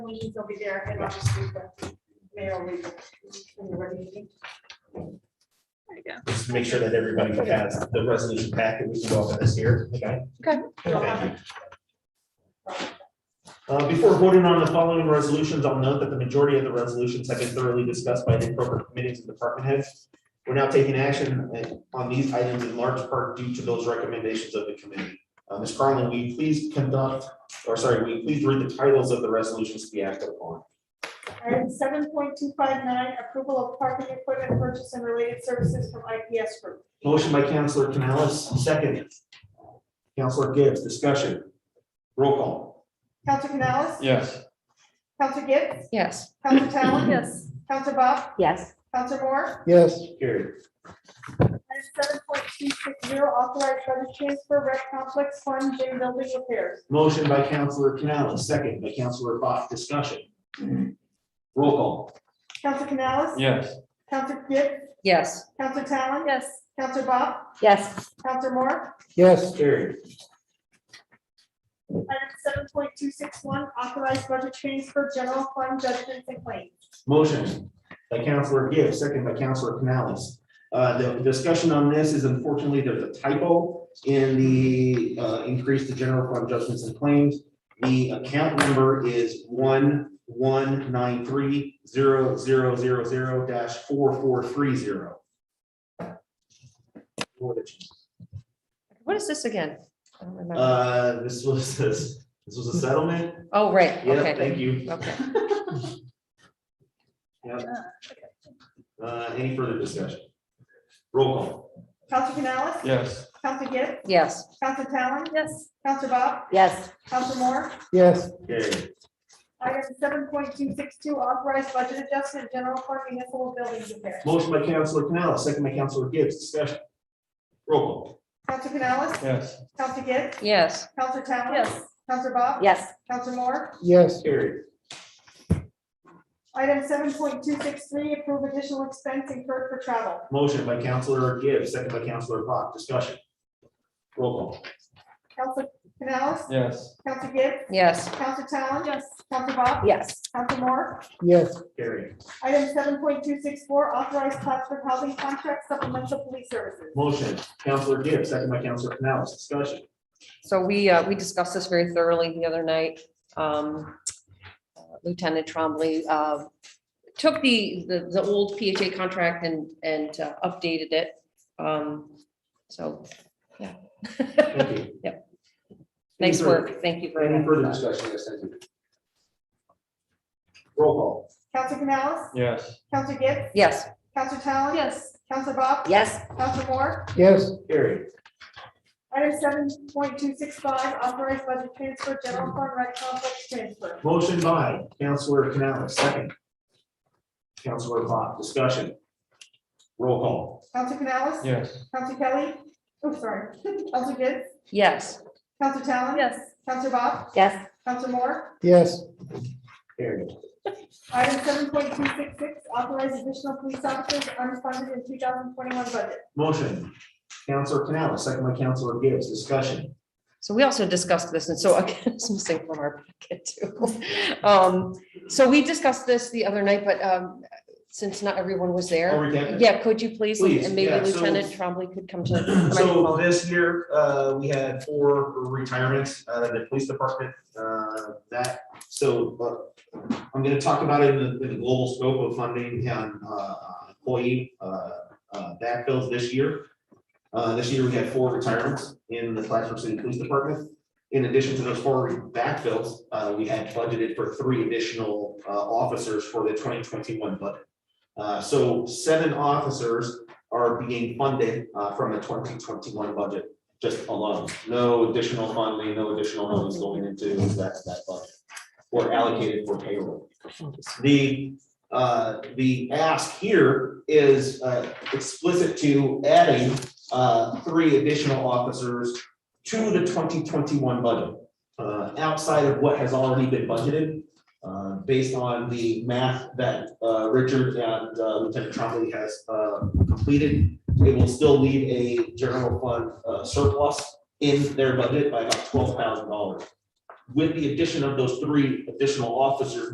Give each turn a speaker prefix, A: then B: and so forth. A: meetings will be there, and I'll just leave the mayor with it in the regular meeting.
B: There you go.
C: Just to make sure that everybody has the resolution packet, we can go over this here, okay?
B: Okay.
C: Thank you. Uh, before voting on the following resolutions, I'll note that the majority of the resolutions have been thoroughly discussed by the appropriate committees and department heads. We're now taking action uh, on these items in large part due to those recommendations of the committee. Uh, Ms. Carlin, will you please conduct, or sorry, will you please read the titles of the resolutions to be acted upon?
A: Item seven point two five nine, approval of parking equipment purchase and related services from IPS Group.
C: Motion by Counselor Canales, second. Counselor Gibbs, discussion. Roll call.
A: Counselor Canales?
D: Yes.
A: Counselor Gibbs?
E: Yes.
A: Counselor Talon?
B: Yes.
A: Counselor Bob?
E: Yes.
A: Counselor Moore?
D: Yes.
C: Carried.
A: Item seven point two six zero, authorized budget transfer, rec complex fund, gym building repairs.
C: Motion by Counselor Canales, second by Counselor Bach, discussion. Roll call.
A: Counselor Canales?
D: Yes.
A: Counselor Gibbs?
E: Yes.
A: Counselor Talon?
B: Yes.
A: Counselor Bob?
E: Yes.
A: Counselor Moore?
D: Yes.
C: Carried.
A: Item seven point two six one, authorized budget transfer, general fund judgments and claims.
C: Motion by Counselor Gibbs, second by Counselor Canales. Uh, the discussion on this is unfortunately, there's a typo in the, uh, increase to general fund adjustments and claims. The account number is one, one, nine, three, zero, zero, zero, zero, dash, four, four, three, zero. Uh,
E: What is this again? I don't remember.
C: Uh, this was, this was a settlement.
E: Oh, right,
C: Yeah,
E: okay.
C: thank you.
E: Okay.
C: Uh, any further discussion? Roll call.
A: Counselor Canales?
D: Yes.
A: Counselor Gibbs?
E: Yes.
A: Counselor Talon?
B: Yes.
A: Counselor Bob?
E: Yes.
A: Counselor Moore?
D: Yes.
C: Okay,
A: Item seven point two six two, authorized budget adjustment, general fund municipal building repair.
C: motion by Counselor Canales, second by Counselor Gibbs, discussion. Roll call.
A: Counselor Canales?
D: Yes.
A: Counselor Gibbs?
E: Yes.
A: Counselor Talon?
B: Yes.
A: Counselor Bob?
E: Yes.
A: Counselor Moore?
D: Yes.
C: Carried.
A: Item seven point two six three, approve additional expense incurred for travel.
C: Motion by Counselor Gibbs, second by Counselor Bach, discussion. Roll call.
A: Counselor Canales?
D: Yes.
A: Counselor Gibbs?
E: Yes.
A: Counselor Talon? Yes. Counselor Bob?
E: Yes.
A: Counselor Moore?
D: Yes.
C: Carried.
A: Item seven point two six four, authorized Plattsburgh housing contract supplemental police services.
C: Motion, Counselor Gibbs, second by Counselor Canales, discussion.
E: So we, uh, we discussed this very thoroughly the other night. Um, Lieutenant Trombley, uh, took the, the, the old PHA contract and, and uh, updated it. Um, so, yeah.
C: Thank you.
E: Yep. Nice
C: Any further-
E: work. Thank you very
C: Any further
E: much.
C: discussion, yes, thank you. Roll call.
A: Counselor Canales?
D: Yes.
A: Counselor Gibbs?
E: Yes.
A: Counselor Talon? Yes. Counselor Bob?
E: Yes.
A: Counselor Moore?
D: Yes.
C: Carried.
A: Item seven point two six five, authorized budget transfer, general fund, rec complex transfer.
C: Motion by Counselor Canales, second. Counselor Bach, discussion. Roll call.
A: Counselor Canales?
D: Yes.
A: Counselor Kelly? Oh, sorry. Counselor Gibbs?
E: Yes.
A: Counselor Talon?
B: Yes.
A: Counselor Bob?
E: Yes.
A: Counselor Moore?
D: Yes.
C: Carried.
A: Item seven point two six six, authorized additional police officers unfunded in two thousand twenty-one budget.
C: Motion. Counselor Canales, second by Counselor Gibbs, discussion.
E: So we also discussed this, and so again, it's missing from our packet too. Um, so we discussed this the other night, but, um, since not everyone was
C: I'll
E: there.
C: recap it.
E: Yeah, could you please?
C: Oh, Please,
E: And maybe
C: yeah, so-
E: Lieutenant Trombley could come to. the
C: So
E: microphone.
C: this year, uh, we had four retirements, uh, the police department, uh, that, so, uh, I'm gonna talk about it in the, in the global scope of funding and, uh, employee, uh, uh, backfills this year. Uh, this year, we had four retirements in the Plattsburgh City Police Department. In addition to those four backfills, uh, we had budgeted for three additional, uh, officers for the twenty twenty-one budget. Uh, so seven officers are being funded uh, from the twenty twenty-one budget, just alone. No additional funding, no additional monies going into that, that budget or allocated for payroll. The, uh, the ask here is uh, explicit to adding uh, three additional officers to the twenty twenty-one budget, uh, outside of what has already been budgeted, uh, based on the math that uh, Richard and uh, Lieutenant Trombley has uh, completed, it will still leave a general fund uh, surplus in their budget by about twelve thousand dollars. With the addition of those three additional officers